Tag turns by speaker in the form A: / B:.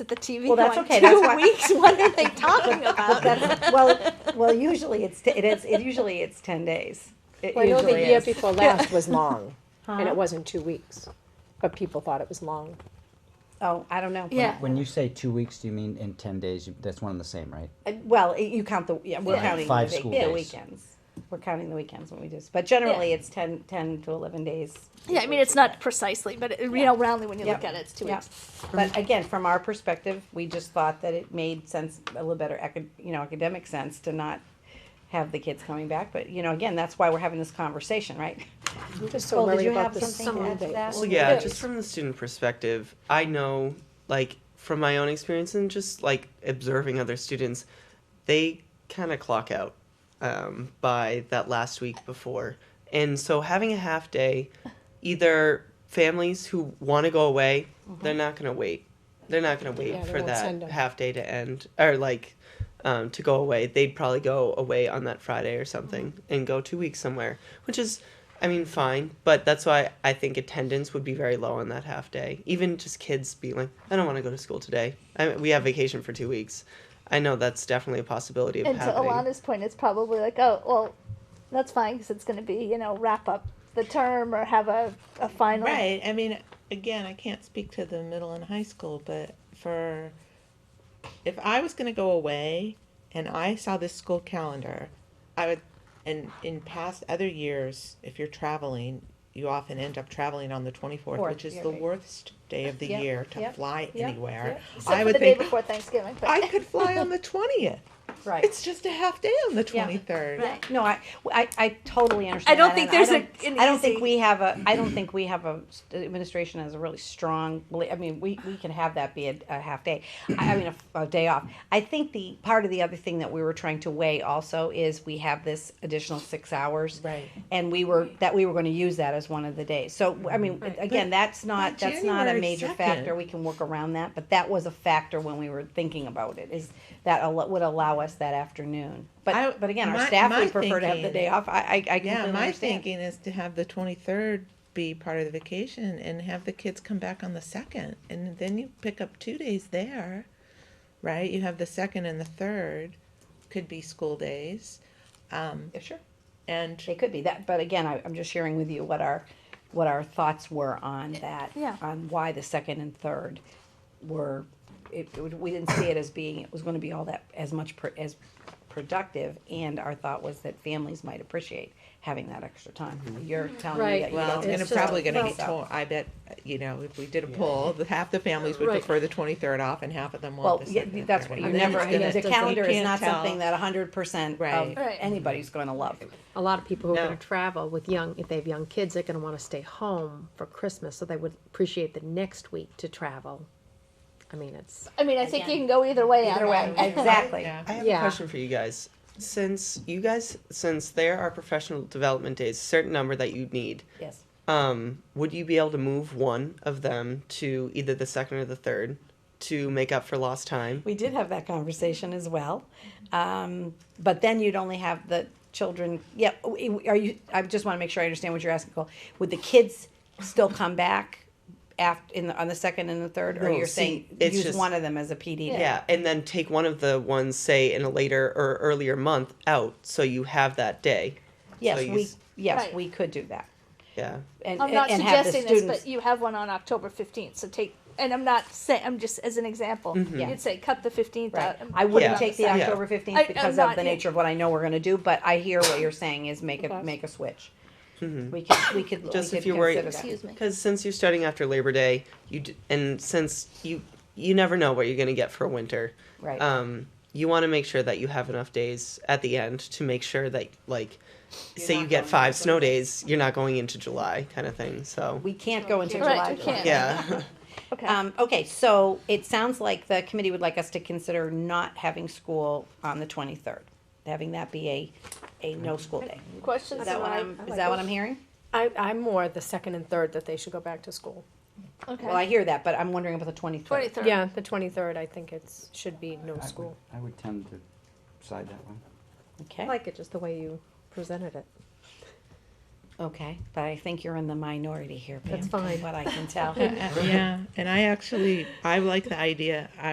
A: at the TV
B: Well, that's
A: going,
B: okay.
A: two
B: That's why-
A: weeks? What are they talking
B: But
A: about?
B: Uh, that's- well, well, usually it's, t- it is, it usually it's ten days. It
C: Well, I know the
B: usually
C: year
B: is.
C: before last was long, and it wasn't two weeks, but people thought it was long.
B: Oh, I don't know.
A: Yeah.
D: When you say two weeks, do you mean in ten days? You, that's one and the same, right?
B: Uh, Well, it- you count the, yeah, we're
A: Yeah.
B: counting the
D: Five
B: week-
D: school
B: the
D: days.
B: weekends. We're counting the weekends when we do, this, but generally it's ten, ten to eleven days.
A: Yeah, I mean, it's not precisely, but it- you know, roundly when you look
B: Yeah.
A: at it, it's two
B: Yeah.
A: weeks.
B: But again, from our perspective, we just thought that it made sense, a little better, acad- you know, academic sense to not have the kids coming back, but, you know, again, that's why we're having this conversation, right?
C: I'm just so
B: Well, did
C: worried
B: you
C: about
B: have
C: the
B: something to
C: school
B: add to
C: days.
B: that?
E: Well, yeah,
C: Yes.
E: just from the student perspective, I know, like, from my own experience and just like observing other students, they kind of clock out um, by that last week before. And so having a half day, either families who want to go away, they're not going to wait. They're not going to wait
C: Mm-hmm. Yeah, they
E: for
C: won't send
E: that
C: 'em.
E: half day to end or like um, to go away. They'd probably go away on that Friday or something and go two weeks somewhere, which is, I mean, fine. But that's why I think attendance would be very low on that half day. Even just kids being like, I don't want to go to school today. I mean, we have vacation for two weeks. I know that's definitely a possibility of
F: And to
E: happening.
F: Alana's point, it's probably like, oh, well, that's fine because it's going to be, you know, wrap up the term or have a, a final.
G: Right. I mean, again, I can't speak to the middle and high school, but for if I was going to go away and I saw this school calendar, I would, and in past other years, if you're traveling, you often end up traveling on the 24th,
B: Fourth,
G: which is
B: yeah,
G: the
B: right.
G: worst day of the
B: Yep,
G: year to
B: yep,
G: fly
B: yep,
G: anywhere.
F: Except
G: I
F: for
G: would
F: the day
G: think
F: before Thanksgiving. But
G: I could fly on the 20th. It's just a half day on the 23rd.
A: Right.
B: No, I, I, I totally understand.
A: I don't
B: that,
A: think
B: and
A: there's
B: don't-
A: a- an
B: I don't think
A: easy-
B: we have a, I don't think we have a, st- administration has a really strong, beli- I mean, we, we can have that be a, a half day. I, I mean, a, a day off. I think the, part of the other thing that we were trying to weigh also is we have this additional six hours.
G: Right.
B: And we were, that we were gonna use that as one of the days. So, I mean, again, that's not,
G: By
B: that's not a
G: January
B: major
G: 2nd.
B: factor. We can work around that, but that was a factor when we were thinking about it, is that al- would allow us that afternoon.
G: I-
B: But, but again, our
G: my-
B: staff
G: my
B: would prefer to have the
G: thinking-
B: day off. I, I, I completely
G: Yeah, my
B: understand.
G: thinking is to have the twenty-third be part of the vacation and have the kids come back on the second, and then you pick up two days there, right? You have the second and the third, could be school days,
B: Yeah, sure.
G: and
B: They could be that, but again, I, I'm just sharing with you what our, what our thoughts were on that.
A: Yeah.
B: On why the second and third were, it, it would- we didn't see it as being, it was gonna be all that, as much, pro- as productive. And our thought was that families might appreciate having that extra time. You're telling me
C: Right.
B: that you
G: Mm-hmm. well,
B: don't.
G: it's gonna
C: it's just-
G: probably gonna get
B: well-
G: told. I bet you know if we did a poll, the half the families would
C: Right.
G: prefer the twenty-third off, and half of them
B: Well,
G: want the
B: yeah,
G: second. and
B: that's
G: third.
B: what, you
C: And then
B: never,
C: it's gonna-
B: the
C: you
B: calendar is
G: can't
B: not
G: tell.
B: something that hundred percent of
G: Right.
A: Right.
B: anybody's gonna love.
C: A lot of people who are
E: No.
C: gonna travel with young, if they have young kids, they're gonna wanna stay home for Christmas, so they would appreciate the next week to travel. I mean, it's,
F: I mean, I think you can go either way.
B: Either
F: on
B: way,
F: that.
B: exactly.
G: Yeah.
E: I have
C: Yeah.
E: a question for you guys. Since you guys, since there are professional development days, certain number that you need,
B: Yes.
E: um, would you be able to move one of them to either the second or the third to make up for lost time?
B: We did have that conversation as well. Um, but then you'd only have the children, yeah, w- are you, I just wanna make sure I understand what you're asking, Cole. Would the kids still come back after, in the, on the second and the third, or
E: No,
B: you're
E: see,
B: saying
E: it's
B: use
E: just-
B: one of them as a PD
E: Yeah.
B: day?
E: and then take one of the ones, say, in a later or earlier month out so you have that day.
B: Yes,
E: So you
B: we,
E: s-
B: yes,
F: Right.
B: we could do that.
E: Yeah.
B: And,
F: I'm not
B: and have the
F: suggesting this,
B: students,
F: but you have one on October 15th. So take, and I'm not saying, I'm just as an example,
B: Mm-hmm. Yeah.
F: you'd say cut the 15th
B: right,
F: out. and
B: I
F: put it
B: wouldn't
F: on
B: take the
F: second.
E: Yeah.
B: October
F: I-
B: fifteenth
F: I'm
B: because of
F: not-
B: the nature of what I know we're gonna do, but I hear what you're saying is make a,
C: Okay.
B: make a switch. We could, we could, we could
E: Mm-hmm. Just if
B: consider
E: you're worried-
B: that.
F: Excuse me.
E: Because since you're starting after Labor Day, you d- and since you you never know what you're going to get for winter,
B: Right.
E: Um, you want to make sure that you have enough days at the end to make sure that, like, say you
G: not
E: get
G: going
E: five
G: into
E: snow days, you're not going into July, kind of thing. So
B: We can't go into
F: Right,
B: July.
F: we can't.
E: yeah,
F: Okay.
B: Um, okay, so it sounds like the committee would like us to consider not having school on the twenty-third, having that be a, a no school day.
F: Questions?
B: Is that what I'm, is that what I'm hearing?
C: I, I'm more the second and third that they should go back to school.
F: Okay.
B: Well, I hear that, but I'm wondering about the twenty-third.
F: 23rd.
C: Yeah, the twenty-third, I think it's, should be no school.
D: I would tend to side that one.
C: I
B: Okay,
C: like it just the way you presented it.
B: Okay, but I think you're in the minority here, Pam.
C: That's
B: from
C: fine.
B: What I can tell.
G: Uh, yeah, and I actually I like the idea. I,